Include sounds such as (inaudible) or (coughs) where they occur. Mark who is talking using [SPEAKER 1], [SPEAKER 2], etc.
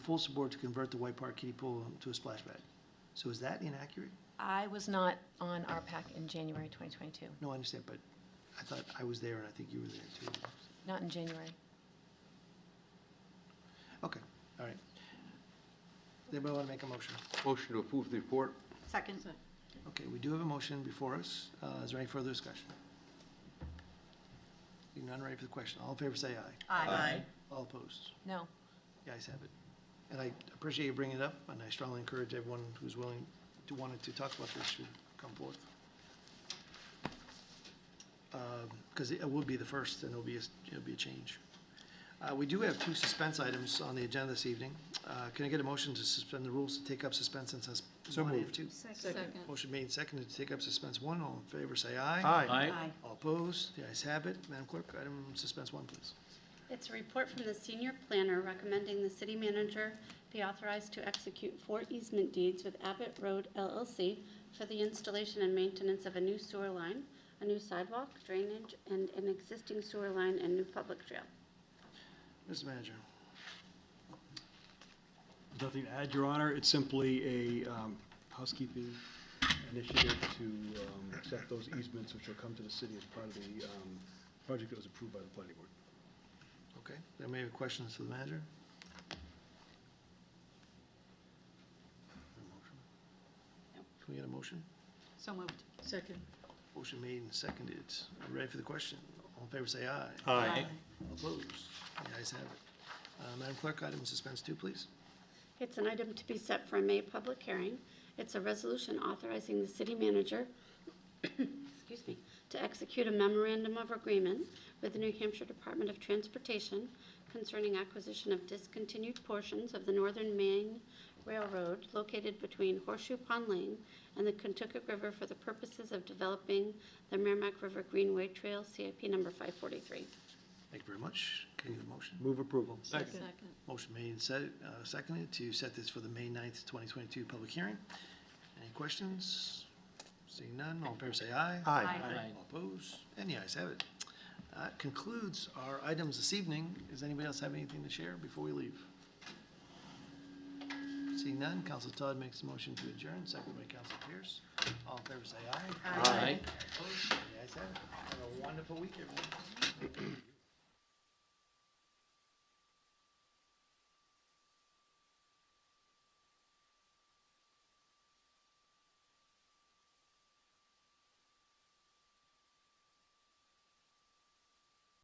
[SPEAKER 1] full support to convert the White Park kiddie pool to a splash pad. So is that inaccurate?
[SPEAKER 2] I was not on RPAC in January 2022,
[SPEAKER 1] No, I understand, but I thought I was there and I think you were there too.
[SPEAKER 2] not in January.
[SPEAKER 1] Okay, all right. Anybody want to make a motion?
[SPEAKER 3] Motion to approve the report?
[SPEAKER 4] Second.
[SPEAKER 1] Okay, we do have a motion before us. Uh, Is there any further discussion? Seeing none, ready for the question. All in favor, say aye.
[SPEAKER 4] Aye.
[SPEAKER 1] All opposed?
[SPEAKER 2] No,
[SPEAKER 1] The ayes have it. And I appreciate you bringing it up, and I strongly encourage everyone who's willing to, wanted to talk about this should come forth. Because Um, it will be the first, and it'll be, a s- it'll be a change. Uh, We do have two suspense items on the agenda this evening. Uh, Can I get a motion to suspend the rules to take up suspense and sus- one and two?
[SPEAKER 4] Second.
[SPEAKER 1] Motion made and seconded to take up suspense one. All in favor, say aye.
[SPEAKER 4] Aye.
[SPEAKER 1] All opposed? The ayes have it. Madam Clerk, item suspense one, please.
[SPEAKER 5] It's a report from the senior planner recommending the city manager be authorized to execute four easement deeds with Abbott Road LLC for the installation and maintenance of a new sewer line, a new sidewalk, drainage, and an existing sewer line and new public trail.
[SPEAKER 1] Mr. Manager.
[SPEAKER 6] Nothing to add, Your Honor. It's simply a um, housekeeping initiative to um, accept those easements which will come to the city as part of the um, project that was approved by the planning board.
[SPEAKER 1] Okay, there may be questions for the manager? Can we get a motion?
[SPEAKER 4] So moved. Second.
[SPEAKER 1] Motion made and seconded. Are you Ready for the question? All in favor, say aye.
[SPEAKER 4] Aye.
[SPEAKER 1] Opposed? The ayes have it. Uh, Madam Clerk, item suspense two, please.
[SPEAKER 5] It's an item to be set for a May public hearing. It's a resolution authorizing the city manager, (coughs) excuse me, to execute a memorandum of agreement with the New Hampshire Department of Transportation concerning acquisition of discontinued portions of the Northern Maine Railroad located between Horseshoe Pond Lane and the Kentucky River for the purposes of developing the Merrimack River Greenway Trail, CIP number 543.
[SPEAKER 1] Thank you very much. Can you have a motion?
[SPEAKER 6] Move approval.
[SPEAKER 4] Second.
[SPEAKER 1] Motion made and set, uh, seconded to set this for the May 9th, twenty twenty-two public hearing. Any questions? Seeing none, all in favor, say aye.
[SPEAKER 4] Aye.
[SPEAKER 1] All opposed? And the ayes have it. That concludes our items this evening. Does anybody else have anything to share before we leave? Seeing none, Council Todd makes the motion to adjourn, seconded by Council Pierce. All in favor, say aye.
[SPEAKER 4] Aye.
[SPEAKER 1] Opposed? The ayes have it. Have a wonderful week, everyone.